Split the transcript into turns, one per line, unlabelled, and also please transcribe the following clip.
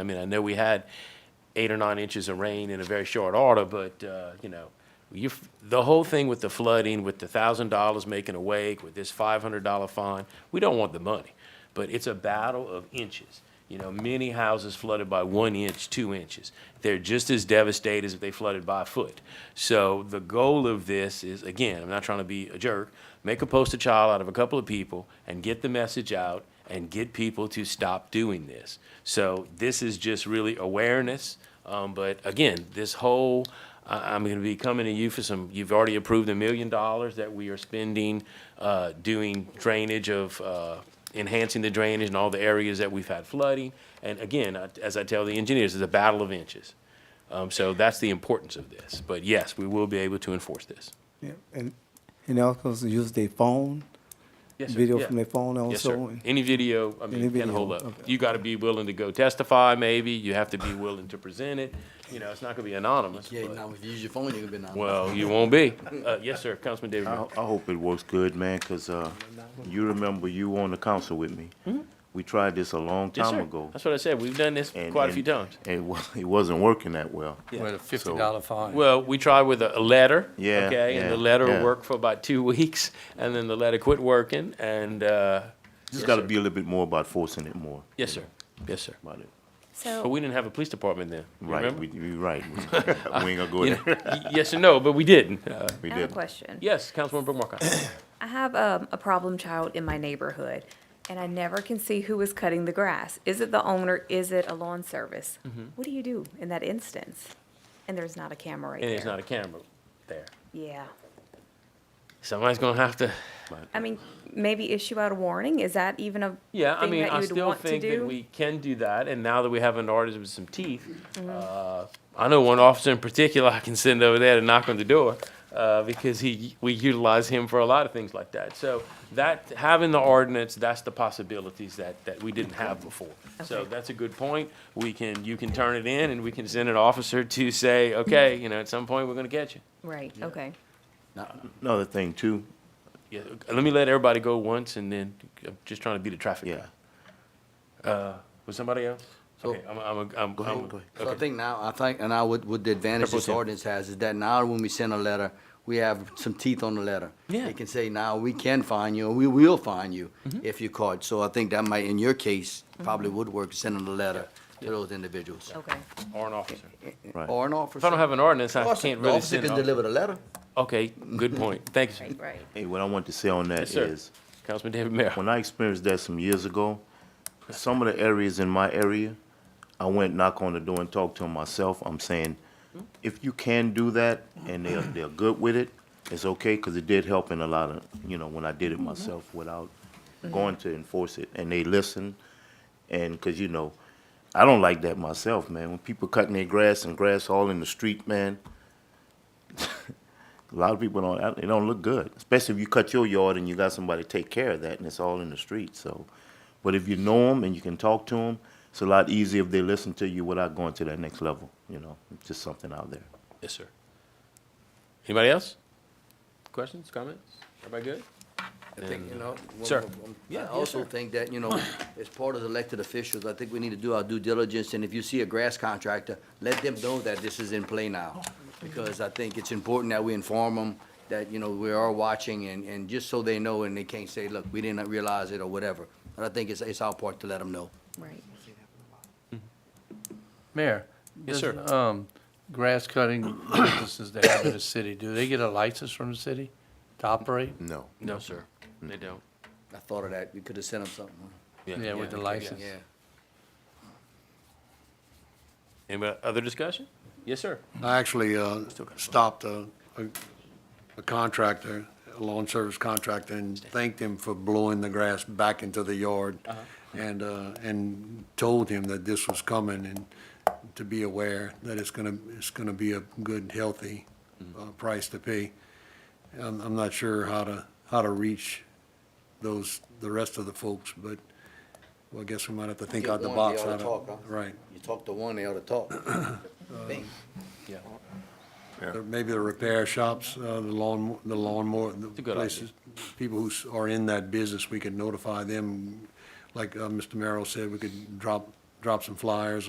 I mean, I know we had eight or nine inches of rain in a very short order, but, uh, you know, you, the whole thing with the flooding, with the thousand dollars making a wake, with this five hundred dollar fine, we don't want the money. But it's a battle of inches. You know, many houses flooded by one inch, two inches. They're just as devastated as if they flooded by a foot. So the goal of this is, again, I'm not trying to be a jerk, make a poster child out of a couple of people and get the message out and get people to stop doing this. So this is just really awareness. Um, but again, this whole, I, I'm gonna be coming to you for some, you've already approved a million dollars that we are spending, uh, doing drainage of, uh, enhancing the drainage in all the areas that we've had flooding. And again, I- as I tell the engineers, it's a battle of inches. Um, so that's the importance of this. But yes, we will be able to enforce this.
Yeah, and, and they also use their phone,
Yes, sir.
video
Yeah.
from their phone
Yes, sir.
also.
Any video, I
Any
mean, can hold
video,
up.
okay.
You gotta be willing to go testify, maybe. You have to be willing to present it. You know, it's not gonna be anonymous,
Yeah,
but-
now if you use your phone, you're gonna be anonymous.
well, you won't be. Uh, yes, sir, Councilman David.
I,
Moore.
I hope it works good, man, because uh, you remember you were on the council with me. We tried this a long
Mm-hmm. Yes,
time
sir.
ago.
That's what I said. We've done this
and-
quite a
and-
few times.
and It, wa- it wasn't working that well.
With a fifty dollar fine.
Well, we tried with a, a letter.
Yeah,
Okay, and the
yeah,
letter
yeah.
worked for about two weeks, and then the letter quit working, and, uh,
Just
Yes,
got to
sir.
be a little bit more about forcing it more.
yes, sir. Yes, sir.
About it.
But
So,
Oh, we didn't have a police department then. you
Right,
remember?
we, we right. We we ain't gonna go
You
there.
know, y- Yes and no, but we didn't. Uh,
We
I have a
didn't.
question.
yes, Councilwoman Brooke Markcott.
I have um, a problem child in my neighborhood, and I never can see who is cutting the grass. Is it the owner? Is it a lawn service?
Mm-hmm.
What do you do in that instance? And there's not a camera right
And there's
there.
not a camera there.
Yeah.
Somebody's gonna have to.
I mean, maybe issue out a warning? Is that even a
Yeah, I
thing
mean,
that
I
you would
still
want to
think that
do?
we can do that, and now that we have an artist with some teeth,
Mm-hmm.
uh, I know one officer in particular I can send over there to knock on the door, uh, because he, we utilize him for a lot of things like that. So that, having the ordinance, that's the possibilities that, that we didn't have before. So
Okay.
that's a good point. We can, you can turn it in, and we can send an officer to say, okay, you know, at some point, we're gonna catch you.
Right, okay.
Another thing too.
Yeah, let me let everybody go once, and then, I'm just trying to be the traffic guy. Uh,
Yeah.
With somebody else?
So-
Okay, I'm, I'm, a- I'm.
Go ahead,
I'm a-
go ahead.
So I
okay.
think now, I think, and I would, with the advantage this
100%.
ordinance has, is that now when we send a letter, we have some teeth on the letter.
Yeah. Mm-hmm.
They can say, now, we can fine you, or we will fine you if you're caught. So I think that might, in your case, probably would work, sending a letter to those individuals.
Okay.
Or an officer.
Right.
Or an officer.
If I don't have an ordinance, I
Officer-
can't
the
really
officer
send.
can
an
deliver the letter.
officer. Okay, good point. Thank you, sir.
Right, right.
Hey, what I want to say on that
Yes,
is,
sir. Councilman David Mayor.
when I experienced that some years ago, some of the areas in my area, I went knock on the door and talked to them myself. I'm saying, if you can do that and they're, they're good with it, it's okay, because it did help in a lot of, you know, when I did it myself without going to enforce it. And they listened, and, because, you know, I don't like that myself, man. When people cutting their grass and grass all in the street, man, a lot of people don't, it don't look good, especially if you cut your yard and you got somebody to take care of that and it's all in the street, so. But if you know them and you can talk to them, it's a lot easier if they listen to you without going to that next level, you know, It's just something out there.
Yes, sir. Anybody else? Questions, comments? Everybody good?
I think, you know. one
Sir.
more- one-
Yeah,
I
yes,
also
sir.
think that, you know, as part of the elected officials, I think we need to do our due diligence, and if you see a grass contractor, let them know that this is in play now. Because I think it's important that we inform them that, you know, we are watching, and, and just so they know, and they can't say, look, we didn't realize it, or whatever. But I think it's, it's our part to let them know.
Right.
Mayor.
Yes,
does,
sir.
Um, grass cutting businesses that have in the city, do they get a license from the city to operate?
No.
No, sir. Mm. They don't.
I thought of that, you could have sent them something.
Yeah, with the
yeah.
license.
Yeah.
Anybody, other discussion? Yes, sir.
I actually uh, stopped a, a- a contractor, a lawn service contractor, and thanked him for blowing the grass back into the yard.
Uh-huh.
And, uh, and told him that this was coming and to be aware that it's gonna, it's gonna be a good, healthy
Mm-hmm.
uh, price to pay. I'm, I'm not sure how to, how to reach those, the rest of the folks, but, well, I guess we might have to think
Get
out the
one, they
box.
oughta
how to-
talk, huh?
Right.
You talk to one, they ought to talk. Think.
Yeah.
Or Maybe the repair shops, uh, the lawn, the lawnmower,
a
the
good idea.
places, people who s- are in that business, we could notify them. Like uh, Mr. Merrill said, we could drop, drop some flyers